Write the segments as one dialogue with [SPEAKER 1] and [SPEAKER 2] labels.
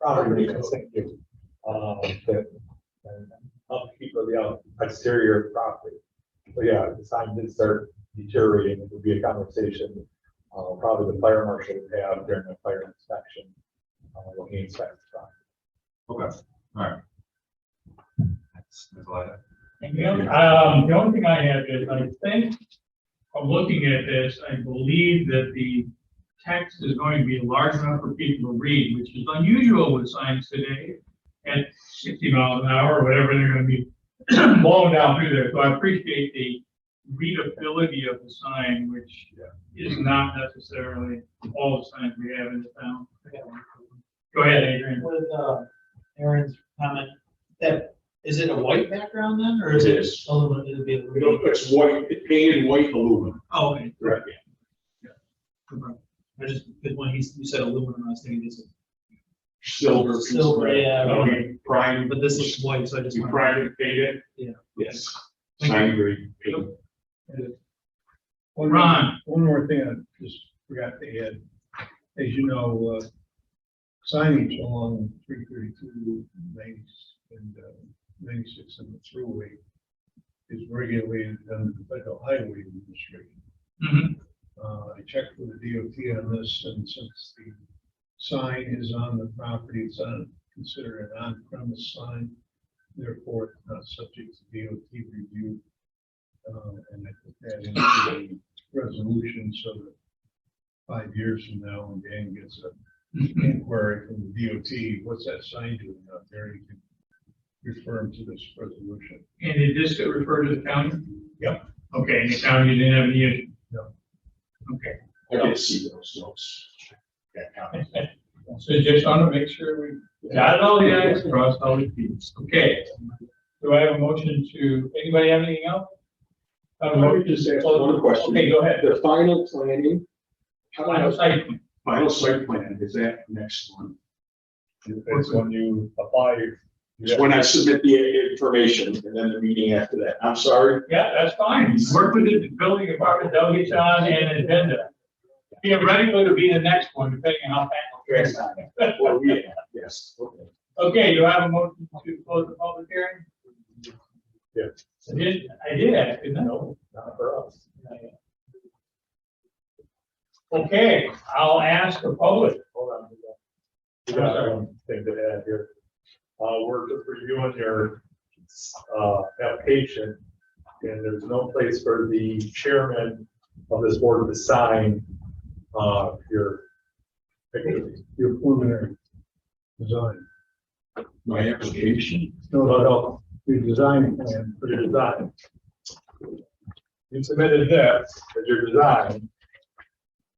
[SPEAKER 1] property, thank you. Uh, that, and upkeep of the exterior property. So yeah, the sign did start deteriorating, it would be a conversation, uh, probably the fire marshal would have during the fire inspection. Uh, when he inspects the property.
[SPEAKER 2] Okay, alright. That's, that's all I have.
[SPEAKER 3] The only- Um, the only thing I have is, I think, from looking at this, I believe that the text is going to be large enough for people to read, which is unusual with signs today at sixty miles an hour or whatever, they're gonna be blown down through there. So I appreciate the readability of the sign, which uh, is not necessarily all the signs we have in the town. Go ahead, Adrian.
[SPEAKER 4] With, uh, Aaron's comment, that, is it a white background then, or is it?
[SPEAKER 5] It is.
[SPEAKER 4] Aluminum, it'll be
[SPEAKER 5] You know,
[SPEAKER 4] aluminum.
[SPEAKER 5] it's white, it's painted white aluminum.
[SPEAKER 4] Oh, okay.
[SPEAKER 5] Correct.
[SPEAKER 4] Oh, Okay. I just, because when he, you said aluminum, I was thinking this, is-
[SPEAKER 5] Silver. piece of
[SPEAKER 4] Silver,
[SPEAKER 5] metal.
[SPEAKER 4] yeah,
[SPEAKER 5] Now,
[SPEAKER 4] right.
[SPEAKER 5] you Prime.
[SPEAKER 4] but this is white, so I just.
[SPEAKER 5] You prime it, paint it?
[SPEAKER 4] Yeah.
[SPEAKER 5] Yes.
[SPEAKER 4] Thank
[SPEAKER 5] Sign grade. paint.
[SPEAKER 6] One more-
[SPEAKER 3] Ron,
[SPEAKER 6] One more thing I just forgot to add. As you know, uh, signage along three thirty-two, ninety, and uh, ninety-six and the thruway is regulated under the federal highway administration.
[SPEAKER 3] Mhm.
[SPEAKER 6] Uh, I checked with the DOT on this, and since the sign is on the property, it's on, considered an on-premise sign. Therefore, it's not subject to DOT review. Uh, and I put that into the resolution so that five years from now, when Dan gets an inquiry from the DOT, what's that sign doing out there? You can refer him to this resolution.
[SPEAKER 3] and did this refer to the county?
[SPEAKER 6] Yep.
[SPEAKER 3] Okay, and the county didn't have any issue?
[SPEAKER 6] No.
[SPEAKER 3] Okay,
[SPEAKER 5] I did see those notes. That comment.
[SPEAKER 3] so just want to make sure we dotted all the i's, crossed all the t's. Okay. Do I have a motion to, anybody have anything else? Have a
[SPEAKER 5] Let me
[SPEAKER 3] motion?
[SPEAKER 5] just ask one question.
[SPEAKER 3] Okay, go ahead.
[SPEAKER 5] The final planning. how
[SPEAKER 3] Final
[SPEAKER 5] does-
[SPEAKER 3] site.
[SPEAKER 5] Final site plan, is that next one?
[SPEAKER 1] It's when you apply. you
[SPEAKER 5] It's when I submit the information and then the meeting after that. I'm sorry.
[SPEAKER 3] Yeah, that's fine. Work with the building department, they'll get you on an agenda. Theoretically, it'll be the next one, depending on how fast.
[SPEAKER 5] Well, yeah, yes, okay.
[SPEAKER 3] Okay, do I have a motion to close the public hearing?
[SPEAKER 1] Yeah.
[SPEAKER 3] I did, I did ask, didn't I?
[SPEAKER 1] No, not for us.
[SPEAKER 3] Okay, I'll ask the public.
[SPEAKER 1] Hold on. we got- We got one thing to add here. Uh, we're just reviewing your, uh, application, and there's no place for the chairman of this board to sign, uh, your.
[SPEAKER 6] Your preliminary design,
[SPEAKER 5] My application.
[SPEAKER 6] no,
[SPEAKER 1] No,
[SPEAKER 6] no,
[SPEAKER 1] no,
[SPEAKER 6] your design plan,
[SPEAKER 1] for your design. You submitted this as your design,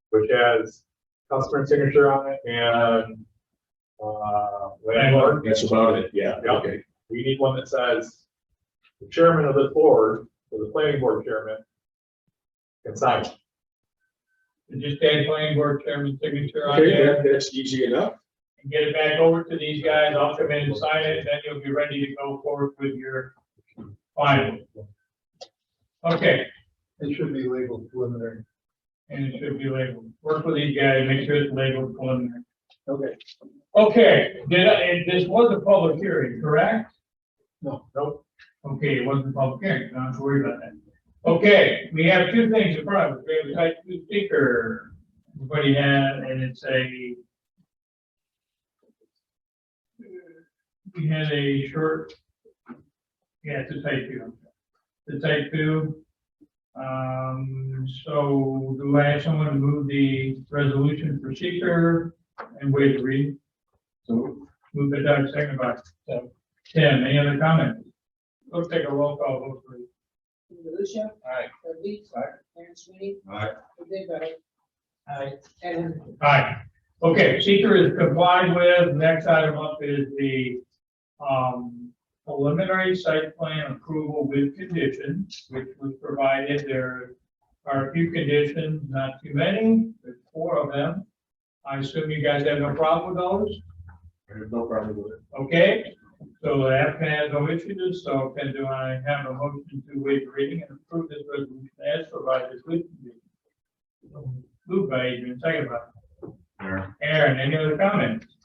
[SPEAKER 1] which has customer signature on it and, uh, landlord.
[SPEAKER 5] That's about it, yeah,
[SPEAKER 1] Yeah.
[SPEAKER 5] okay.
[SPEAKER 1] we need one that says the chairman of the board, or the planning board chairman, can sign. it.
[SPEAKER 3] Just add planning board chairman signature on
[SPEAKER 5] Okay,
[SPEAKER 3] there
[SPEAKER 5] that, that's easy enough.
[SPEAKER 3] and get it back over to these guys. I'll come in and sign it, and then you'll be ready to go forward with your final. Okay,
[SPEAKER 6] it should be labeled preliminary.
[SPEAKER 3] and it should be labeled. Work with these guys, make sure it's labeled preliminary.
[SPEAKER 6] Okay.
[SPEAKER 3] Okay, did I, and this was a public hearing, correct?
[SPEAKER 6] No,
[SPEAKER 1] Nope,
[SPEAKER 3] Okay, it wasn't a public hearing, don't have to worry about that. Okay, we have two things in front of us, we have a type two speaker, everybody had, and it's a. We had a short, yeah, it's a type two, the type two. Um, so do I have someone to move the resolution for seeker and wait to read? So move the down second by so, Tim, any other comments? Let's take a roll call vote, please.
[SPEAKER 7] Lucia.
[SPEAKER 3] Aye.
[SPEAKER 7] Doug Leeds.
[SPEAKER 3] Aye.
[SPEAKER 7] Aaron Sweeney.
[SPEAKER 5] Aye.
[SPEAKER 7] Dave Eckert. Aye. Ed Henry.
[SPEAKER 3] Aye. Okay, seeker is complied with. Next item up is the, um, preliminary site plan approval with conditions, which was provided. There are a few conditions, not too many, but four of them. I assume you guys have no problem with those?
[SPEAKER 5] No problem with it.
[SPEAKER 3] Okay, so the applicant has no issues, so can do I have a motion to waive reading and approve this resolution as provided with conditions? Moved by Adrian, second by
[SPEAKER 5] Aaron.
[SPEAKER 3] Aaron, any other comments?